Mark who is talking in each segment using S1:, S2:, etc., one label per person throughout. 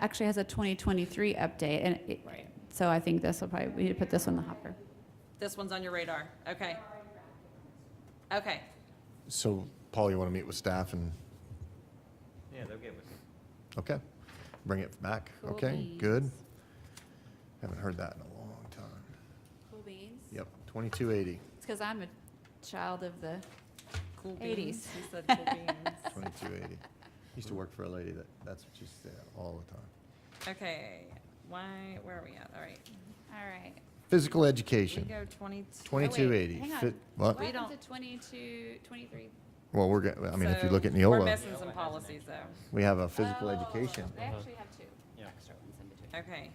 S1: actually has a 2023 update, and it-
S2: Right.
S1: so I think this will probably, we need to put this on the hopper.
S2: This one's on your radar. Okay. Okay.
S3: So, Paul, you want to meet with staff and,
S4: Yeah, they'll get with it.
S3: okay, bring it back.
S1: Cool
S3: Okay,
S1: beans.
S3: good. Haven't heard that in a long time.
S1: Cool beans.
S3: Yep, 2280,
S1: It's because I'm a child of the,
S2: Cool beans.
S1: 80s.
S2: He said cool beans.
S3: 2280. Used to work for a lady that, that's what she said all the time.
S2: Okay. Why? Where are we at? All right.
S1: all right.
S3: Physical
S2: We
S3: education,
S2: go 22.
S1: Oh, wait,
S3: 2280.
S1: Hang
S3: Fit-
S1: on.
S3: What?
S1: What happened
S2: don't-
S1: to 22, 23?
S3: Well, we're, get- I mean, if you
S2: So
S3: look at
S2: We're
S3: Neola,
S2: missing some policies though.
S3: we have a physical
S1: Oh,
S3: education.
S1: They actually have two
S4: Yeah.
S1: extra ones in between.
S2: Okay.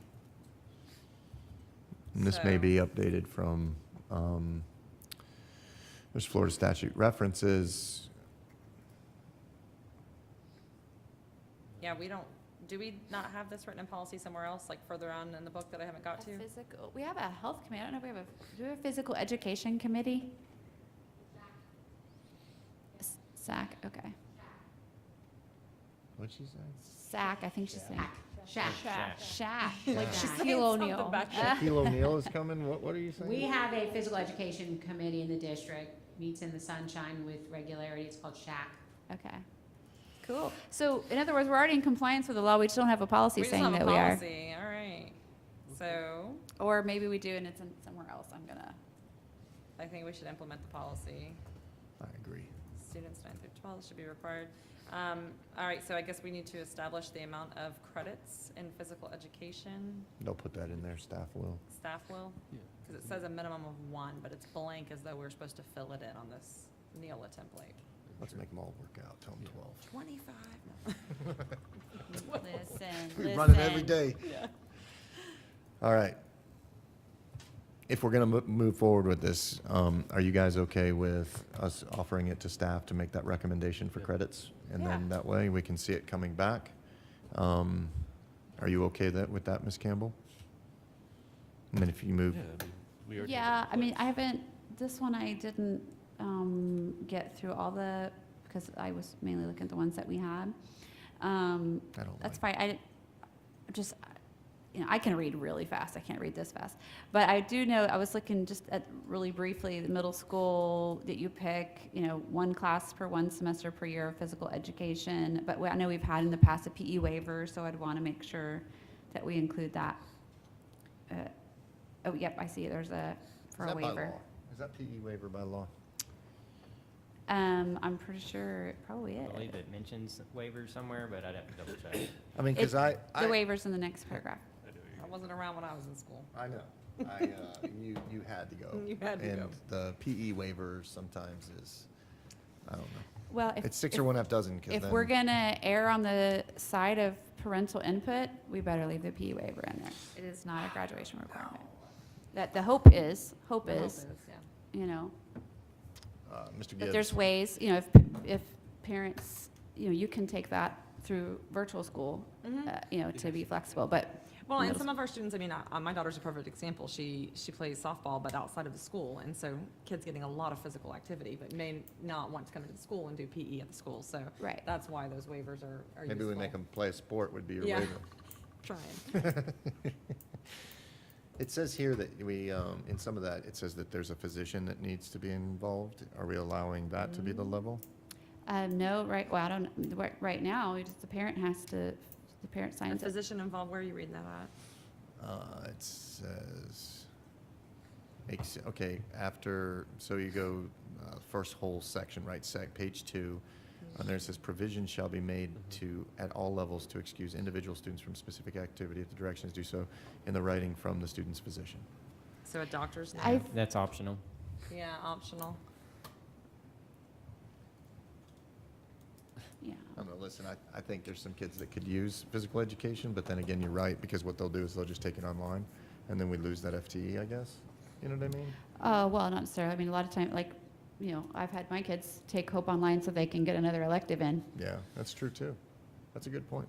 S3: And This may
S2: So-
S3: be updated from, um, there's Florida statute references.
S2: Yeah, we don't, do we not have this written in policy somewhere else, like further on in the book that I haven't got to?
S1: A Physical, we have a health committee, I don't know if we have a, do we have a physical education committee? S- SAC, okay.
S3: What'd she say?
S1: SAC, I think she's saying.
S5: Shack.
S4: Shack.
S1: SAC, like
S5: She's
S1: Shaquille O'Neal.
S2: about
S3: Shaquille O'Neal is coming? What, what are you saying?
S5: We have a physical education committee in the district, meets in the sunshine with regularity, it's called Shack.
S1: Okay. Cool. So in other words, we're already in compliance with the law, we just don't have a policy saying that we are.
S2: We just have a policy, all right. So
S1: Or maybe we do and it's in somewhere else, I'm gonna.
S2: I think we should implement the policy.
S3: I agree.
S2: Students nine through twelve should be required. Um, all right, so I guess we need to establish the amount of credits in physical education,
S3: They'll put that in there, staff will.
S2: staff will. Because it says a minimum of one, but it's blank as though we're supposed to fill it in on this Neola template.
S3: Let's make them all work out, tell them 12.
S2: Twenty-five?
S1: Listen,
S3: We run it every day. All right. If we're going to move forward with this, um, are you guys okay with us offering it to staff to make that recommendation for credits? And then
S2: Yeah.
S3: that way, we can see it coming back. Um, Are you okay that, with that, Ms. Campbell? And then if you move,
S1: Yeah, I mean, I haven't, this one I didn't um, get through all the, because I was mainly looking at the ones that we had. Um,
S3: I don't like,
S1: That's fine, I, I'm just, you know, I can read really fast, I can't read this fast. But I do know, I was looking just at, really briefly, the middle school that you pick, you know, one class per one semester per year of physical education. But we- I know we've had in the past a PE waiver, so I'd want to make sure that we include that. Uh, Oh, yep, I see, there's a, for a waiver.
S3: Is that PE waiver by law?
S1: Um, I'm pretty sure it probably
S4: I
S1: is.
S4: believe it mentions waivers somewhere, but I'd have to double check.
S3: I mean, because
S1: It-
S3: I,
S1: The
S3: I,
S1: waiver's in the next paragraph.
S2: I wasn't around when I was in school.
S3: I know. I, uh, you, you had to go.
S2: You had to go.
S3: And the PE waiver sometimes is, I don't know.
S1: Well, if.
S3: It's six
S1: if-
S3: or one half dozen, because
S1: If
S3: then
S1: we're gonna err on the side of parental input, we better leave the PE waiver in there. It is not a graduation requirement. That the hope is, hope is,
S2: Yeah.
S1: you know,
S3: uh, Mr.
S1: that
S3: Gibbs.
S1: there's ways, you know, if, if parents, you know, you can take that through virtual school,
S2: Mhm.
S1: uh, you know, to be flexible, but,
S2: Well, and
S1: Middle
S2: some of our students, I mean, uh, my daughter's a perfect example. She, she plays softball, but outside of the school. And so kids getting a lot of physical activity, but may not want to come into the school and do PE at the school. So
S1: right.
S2: that's why those waivers are, are useful.
S3: Maybe we make them play a sport would be your
S2: Yeah.
S3: waiver.
S2: Trying.
S3: It says here that we, um, in some of that, it says that there's a physician that needs to be involved. Are we allowing that to be the level?
S1: Um, no, right, well, I don't, right, right now, it's the parent has to, the parent
S2: And
S1: signs it.
S2: physician involved, where are you reading that at?
S3: Uh, it says, makes, okay, after, so you go, uh, first whole section, right, sec, page two. And there it says provision shall be made to, at all levels, to excuse individual students from specific activity if the directions do so in the writing from the student's physician.
S2: So a doctor's note?
S1: I-
S4: Yeah, That's optional.
S2: Yeah, optional.
S1: Yeah,
S3: I'm gonna listen, I, I think there's some kids that could use physical education, but then again, you're right, because what they'll do is they'll just take it online, and then we lose that FTE, I guess. You know what I mean?
S1: Uh, well, not necessarily. I mean, a lot of time, like, you know, I've had my kids take Hope Online so they can get another elective in.
S3: Yeah, that's true, too. That's a good point.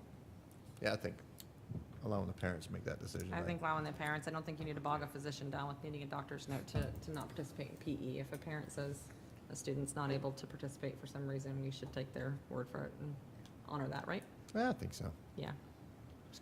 S3: Yeah, I think allowing the parents to make that decision,
S2: I
S3: right?
S2: think allowing the parents, I don't think you need to bog a physician down with needing a doctor's note to, to not participate in PE. If a parent says a student's not able to participate for some reason, we should take their word for it and honor that, right?
S3: Yeah, I think so.
S2: Yeah,